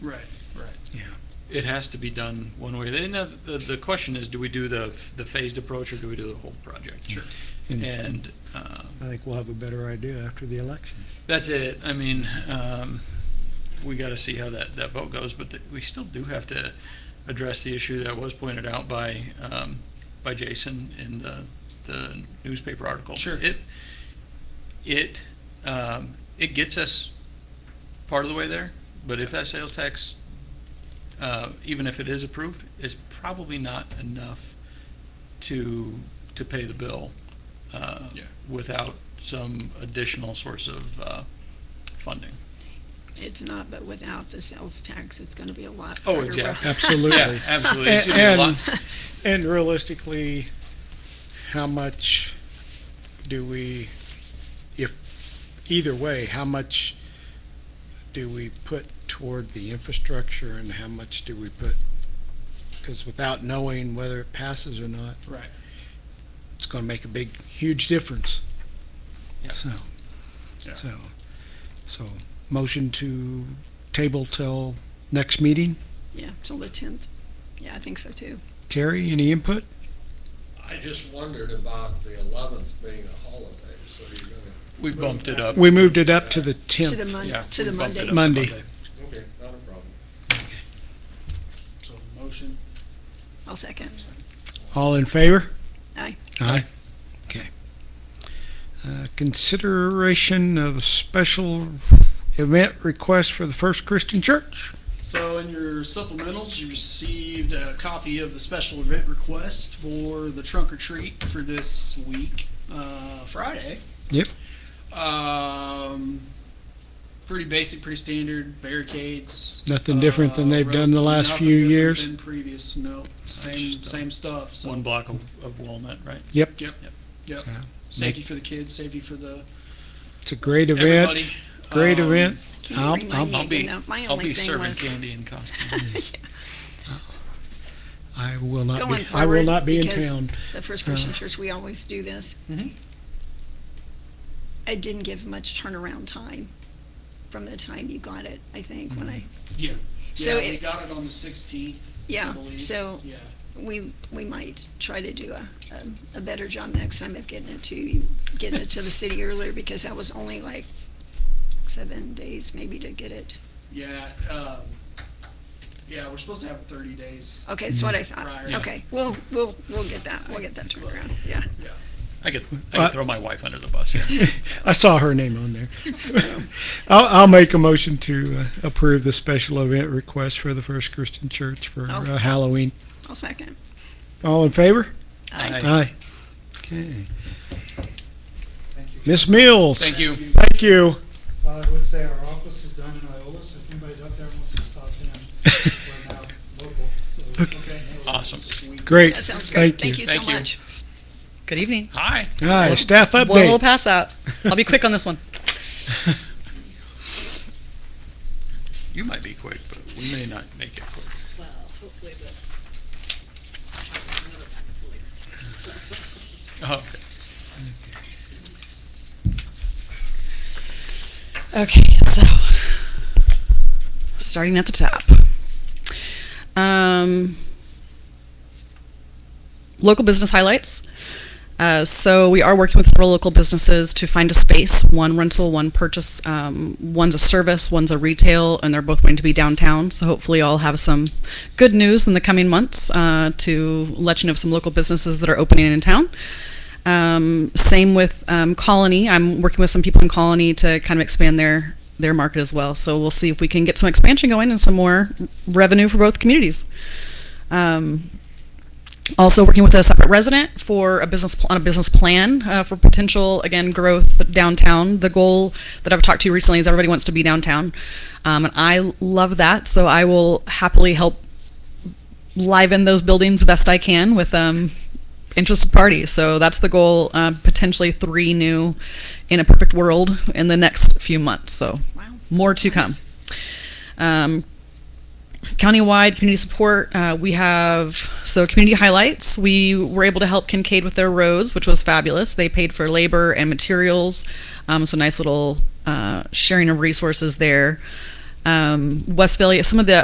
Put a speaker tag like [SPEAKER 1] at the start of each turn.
[SPEAKER 1] Right, right.
[SPEAKER 2] Yeah.
[SPEAKER 1] It has to be done one way. Then uh, the, the question is, do we do the, the phased approach or do we do the whole project? Sure. And, um,
[SPEAKER 2] I think we'll have a better idea after the election.
[SPEAKER 1] that's it. I mean, um, we got to see how that, that vote goes, but th- we still do have to address the issue that was pointed out by, um, by Jason in the, the newspaper article. Sure. It, it, um, it gets us part of the way there, but if that sales tax, uh, even if it is approved, is probably not enough to, to pay the bill uh,
[SPEAKER 3] Yeah.
[SPEAKER 1] without some additional source of uh, funding.
[SPEAKER 4] It's not, but without the sales tax, it's gonna be a lot
[SPEAKER 1] Oh,
[SPEAKER 4] harder.
[SPEAKER 1] exactly. Yeah,
[SPEAKER 2] Absolutely.
[SPEAKER 1] absolutely. It's gonna be a lot.
[SPEAKER 2] And, and realistically, how much do we, if, either way, how much do we put toward the infrastructure and how much do we put? Because without knowing whether it passes or not,
[SPEAKER 3] Right.
[SPEAKER 2] it's gonna make a big, huge difference.
[SPEAKER 1] Yeah.
[SPEAKER 2] So,
[SPEAKER 3] Yeah.
[SPEAKER 2] so, so, motion to table till next meeting.
[SPEAKER 4] Yeah, till the tenth. Yeah, I think so too.
[SPEAKER 2] Terry, any input?
[SPEAKER 5] I just wondered about the eleventh being a holiday, so you're gonna,
[SPEAKER 1] We bumped it up.
[SPEAKER 2] We moved it up to the
[SPEAKER 4] To the
[SPEAKER 2] tenth.
[SPEAKER 1] Yeah,
[SPEAKER 4] Mon, to
[SPEAKER 1] we
[SPEAKER 4] the
[SPEAKER 1] bumped it up
[SPEAKER 4] Monday.
[SPEAKER 1] to
[SPEAKER 2] Monday.
[SPEAKER 5] okay, not a problem.
[SPEAKER 3] So motion,
[SPEAKER 4] I'll second.
[SPEAKER 2] All in favor?
[SPEAKER 4] Aye.
[SPEAKER 2] Aye. Okay. Uh, Consideration of a special event request for the First Christian Church.
[SPEAKER 3] So in your supplementals, you received a copy of the special event request for the trunk or treat for this week, uh, Friday.
[SPEAKER 2] Yep.
[SPEAKER 3] Um, pretty basic, pretty standard barricades.
[SPEAKER 2] Nothing different than
[SPEAKER 3] Uh,
[SPEAKER 2] they've done the last
[SPEAKER 3] nothing
[SPEAKER 2] few
[SPEAKER 3] different
[SPEAKER 2] years?
[SPEAKER 3] Than previous, no, same,
[SPEAKER 1] Just, uh,
[SPEAKER 3] same stuff, so.
[SPEAKER 1] One block of of walnut, right?
[SPEAKER 2] Yep.
[SPEAKER 3] Yep, yep, yep.
[SPEAKER 2] Yeah.
[SPEAKER 3] Safety for the kids, safety for the,
[SPEAKER 2] It's a great event.
[SPEAKER 3] everybody.
[SPEAKER 2] Great
[SPEAKER 3] Um,
[SPEAKER 2] event.
[SPEAKER 4] Can you
[SPEAKER 2] I'll-
[SPEAKER 4] bring my
[SPEAKER 2] I'll-
[SPEAKER 4] knee
[SPEAKER 1] I'll be,
[SPEAKER 4] again? My
[SPEAKER 1] I'll
[SPEAKER 4] only
[SPEAKER 1] be
[SPEAKER 4] thing
[SPEAKER 1] serving
[SPEAKER 4] was-
[SPEAKER 1] candy in costume.
[SPEAKER 2] I will not
[SPEAKER 4] Going
[SPEAKER 2] be, I will
[SPEAKER 4] forward,
[SPEAKER 2] not be in
[SPEAKER 4] because
[SPEAKER 2] town. Uh-huh.
[SPEAKER 4] The First Christian Church, we always do this.
[SPEAKER 3] Mhm.
[SPEAKER 4] I didn't give much turnaround time from the time you got it, I think, when I,
[SPEAKER 3] Yeah,
[SPEAKER 4] So
[SPEAKER 3] yeah, we
[SPEAKER 4] it-
[SPEAKER 3] got it on the sixteenth, I
[SPEAKER 4] yeah,
[SPEAKER 3] believe.
[SPEAKER 4] so
[SPEAKER 3] Yeah.
[SPEAKER 4] we, we might try to do a, a, a better job next time of getting it to, you getting it to the city earlier, because that was only like seven days maybe to get it.
[SPEAKER 3] Yeah, um, yeah, we're supposed to have thirty days.
[SPEAKER 4] Okay, that's what I thought.
[SPEAKER 3] Right, right.
[SPEAKER 4] Okay, we'll, we'll, we'll get that, we'll get that turned around, yeah.
[SPEAKER 3] Yeah.
[SPEAKER 1] I could, I
[SPEAKER 2] Uh,
[SPEAKER 1] could throw my wife under the bus here.
[SPEAKER 2] I saw her name on there. I'll, I'll make a motion to uh, approve the special event request for the First Christian Church for
[SPEAKER 4] I'll-
[SPEAKER 2] uh, Halloween.
[SPEAKER 4] I'll second.
[SPEAKER 2] All in favor?
[SPEAKER 1] Aye.
[SPEAKER 2] Aye. Okay. Miss Mills?
[SPEAKER 1] Thank you.
[SPEAKER 2] Thank you.
[SPEAKER 6] Well, Uh, I would say our office is down in Iola, so if anybody's up there and wants to stop in, we're now local, so.
[SPEAKER 3] Okay.
[SPEAKER 1] Awesome.
[SPEAKER 2] Great.
[SPEAKER 4] That sounds great,
[SPEAKER 2] Thank
[SPEAKER 4] thank
[SPEAKER 2] you.
[SPEAKER 4] you so
[SPEAKER 1] Thank you.
[SPEAKER 4] much.
[SPEAKER 7] Good evening.
[SPEAKER 1] Hi.
[SPEAKER 2] Aye, staff
[SPEAKER 7] One little
[SPEAKER 2] update.
[SPEAKER 7] pass out. I'll be quick on this one.
[SPEAKER 1] You might be quick, but we may not make it quick.
[SPEAKER 8] Well, hopefully, but another packet later.
[SPEAKER 1] Oh, okay.
[SPEAKER 7] Okay, so starting at the top. Um, local business highlights. Uh, so we are working with several local businesses to find a space. One rental, one purchase. Um, one's a service, one's a retail, and they're both going to be downtown. So hopefully, I'll have some good news in the coming months uh, to let you know of some local businesses that are opening in town. Um, same with um, Colony. I'm working with some people in Colony to kind of expand their their market as well. So we'll see if we can get some expansion going and some more revenue for both communities. Um, also working with a separate resident for a business pl- on a business plan uh, for potential again growth downtown. The goal that I've talked to recently is everybody wants to be downtown, um, and I love that. So I will happily help liven those buildings best I can with um, interested parties. So that's the goal. Uh, potentially three new in a perfect world in the next few months. So
[SPEAKER 4] Wow.
[SPEAKER 7] more to come.
[SPEAKER 4] Nice.
[SPEAKER 7] Um, countywide community support, uh, we have so community highlights. We were able to help Kincaid with their roads, which was fabulous. They paid for labor and materials, um, so nice little uh, sharing of resources there. Um, West Valley, some of the